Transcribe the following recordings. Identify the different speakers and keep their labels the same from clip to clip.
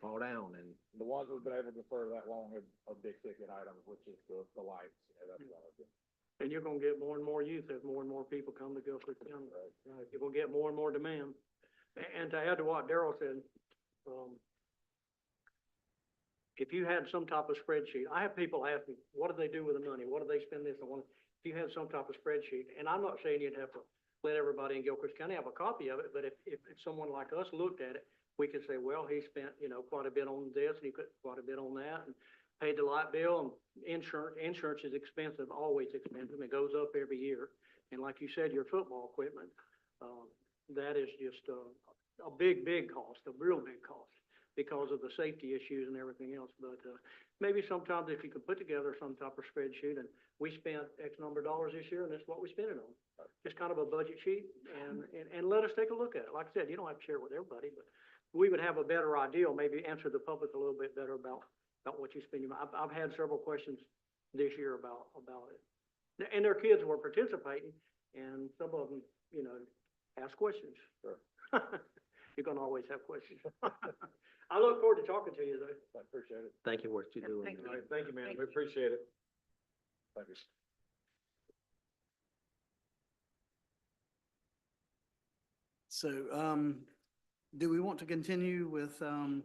Speaker 1: fall down and,
Speaker 2: The ones we've been able to defer that long are, are big ticket items, which is the, the lights, and that's what I was doing.
Speaker 3: And you're gonna get more and more youth as more and more people come to Gulfport County.
Speaker 2: Right.
Speaker 3: You're gonna get more and more demand. A- And to add to what Daryl said, um, if you had some type of spreadsheet, I have people ask me, what do they do with the money? What do they spend this on? If you had some type of spreadsheet, and I'm not saying you'd have to let everybody in Gilchrist County have a copy of it, but if, if if someone like us looked at it, we could say, well, he spent, you know, quite a bit on this, and he put quite a bit on that, and paid the light bill, and insurance, insurance is expensive, always expensive, it goes up every year. And like you said, your football equipment, um, that is just uh, a, a big, big cost, a real big cost because of the safety issues and everything else. But, uh, maybe sometimes if you could put together some type of spreadsheet and we spent X number of dollars this year and that's what we spent it on. Just kind of a budget sheet and, and, and let us take a look at it. Like I said, you don't have to share it with everybody, but we would have a better idea, maybe answer the public a little bit better about about what you spend your, mon- I've, I've had several questions this year about, about it. Th- And their kids were participating, and some of them, you know, asked questions.
Speaker 2: Sure.
Speaker 3: You're gonna always have questions. I look forward to talking to you, though.
Speaker 2: I appreciate it.
Speaker 1: thank you for what you do.
Speaker 4: Thank
Speaker 2: All right, thank you, man. We appreciate it. Thank you.
Speaker 5: So, um, do we want to continue with, um,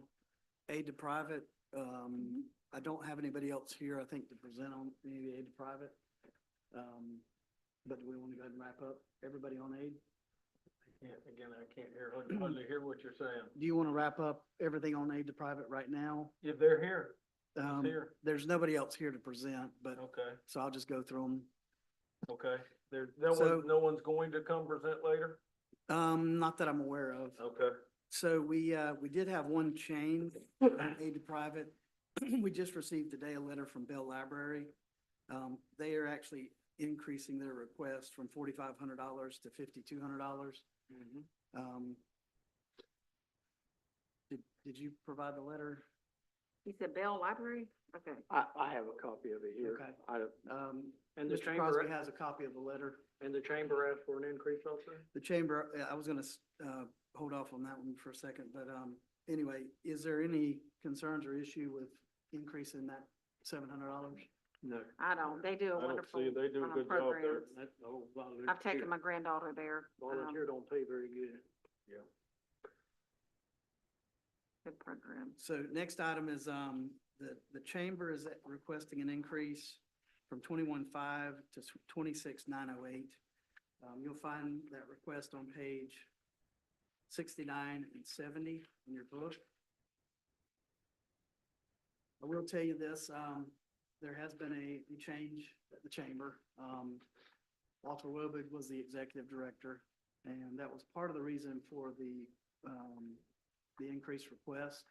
Speaker 5: aid to private? Um, I don't have anybody else here, I think, to present on maybe aid to private. Um, but do we want to go ahead and wrap up? Everybody on aid?
Speaker 3: Again, I can't hear, hardly hear what you're saying.
Speaker 5: Do you want to wrap up everything on aid to private right now?
Speaker 3: If they're here,
Speaker 5: Um, there's nobody else here to present, but,
Speaker 3: okay,
Speaker 5: so I'll just go through them.
Speaker 3: okay. There,
Speaker 5: one- So-
Speaker 3: no one's going to come present later?
Speaker 5: Um, not that I'm aware of.
Speaker 3: Okay.
Speaker 5: So we, uh, we did have one change, on aid to private. We just received today a letter from Bell Library. Um, they are actually increasing their request from forty-five hundred dollars to fifty-two hundred dollars. Um, did, did you provide the letter?
Speaker 4: He said Bell Library? Okay.
Speaker 3: I, I have a copy of it here.
Speaker 5: Okay.
Speaker 3: I don't-
Speaker 5: Um,
Speaker 3: And the
Speaker 5: Mr.
Speaker 3: chamber,
Speaker 5: Crosby has a copy of the letter.
Speaker 3: and the chamber asked for an increase also?
Speaker 5: The chamber, uh, I was gonna, s- uh, hold off on that one for a second, but, um, anyway, is there any concerns or issue with increasing that seven hundred dollars?
Speaker 3: No.
Speaker 4: I don't, they do
Speaker 2: I
Speaker 4: a
Speaker 2: don't
Speaker 4: wonderful
Speaker 2: see- they do a
Speaker 4: um,
Speaker 2: good job there.
Speaker 4: programs.
Speaker 3: That's the whole volunteer.
Speaker 4: I've taken my granddaughter there. um,
Speaker 3: Volunteer don't pay very good.
Speaker 4: Good program.
Speaker 5: So next item is, um, the, the chamber is requesting an increase from twenty-one-five to twenty-six nine oh eight. Um, you'll find that request on page sixty-nine and seventy in your book. I will tell you this, um, there has been a, a change at the chamber. Um, Walter Wobig was the executive director, and that was part of the reason for the, um, the increased request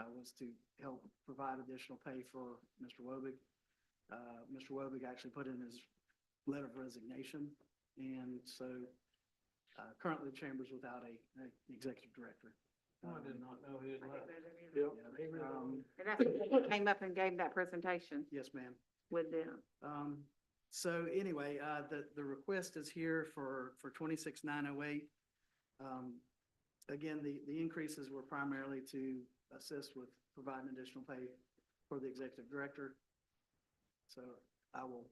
Speaker 5: uh, was to help provide additional pay for Mr. Wobig. Uh, Mr. Wobig actually put in his letter of resignation, and so uh, currently the chamber's without a, an executive director. Um,
Speaker 3: not know he had
Speaker 4: And
Speaker 3: Yeah.
Speaker 5: um,
Speaker 4: that's, when he came up and gave that presentation
Speaker 5: Yes, ma'am.
Speaker 4: with them.
Speaker 5: Um, so anyway, uh, the, the request is here for, for twenty-six nine oh eight. Um, again, the, the increases were primarily to assist with providing additional pay for the executive director. So I will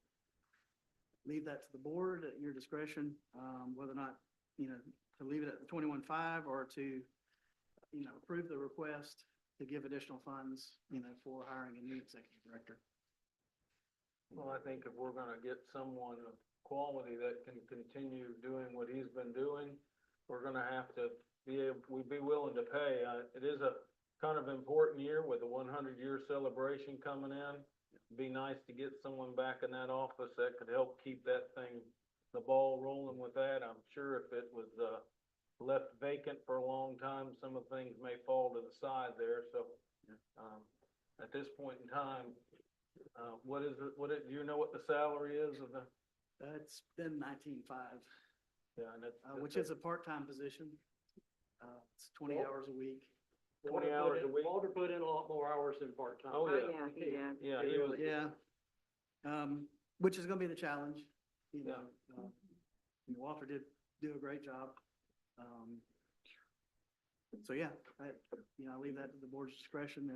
Speaker 5: leave that to the board at your discretion, um, whether or not, you know, to leave it at twenty-one five or to, you know, approve the request to give additional funds, you know, for hiring a new executive director.
Speaker 6: Well, I think if we're gonna get someone of quality that can continue doing what he's been doing, we're gonna have to be, ab- we'd be willing to pay. Uh, it is a kind of important year with the one hundred year celebration coming in. Be nice to get someone back in that office that could help keep that thing, the ball rolling with that. I'm sure if it was, uh, left vacant for a long time, some of the things may fall to the side there, so, um, at this point in time, uh, what is, it- what it, do you know what the salary is of the,
Speaker 5: Uh, It's been nineteen-five,
Speaker 6: yeah, and it's.
Speaker 5: uh, which is a part-time position. Uh, it's twenty
Speaker 3: Well-
Speaker 5: hours a week.
Speaker 3: Walter
Speaker 6: 20
Speaker 3: put
Speaker 6: hours a
Speaker 3: in-
Speaker 6: week.
Speaker 3: Walter put in a lot more hours than part-time.
Speaker 6: Oh,
Speaker 4: Oh,
Speaker 6: yeah.
Speaker 4: yeah, he did.
Speaker 6: Yeah,
Speaker 3: It
Speaker 6: he was,
Speaker 3: really-
Speaker 5: Yeah. Um, which is gonna be the challenge, you
Speaker 6: Yeah.
Speaker 5: know. uh, Walter did do a great job. Um, So, yeah, I, you know, I leave that to the board's discretion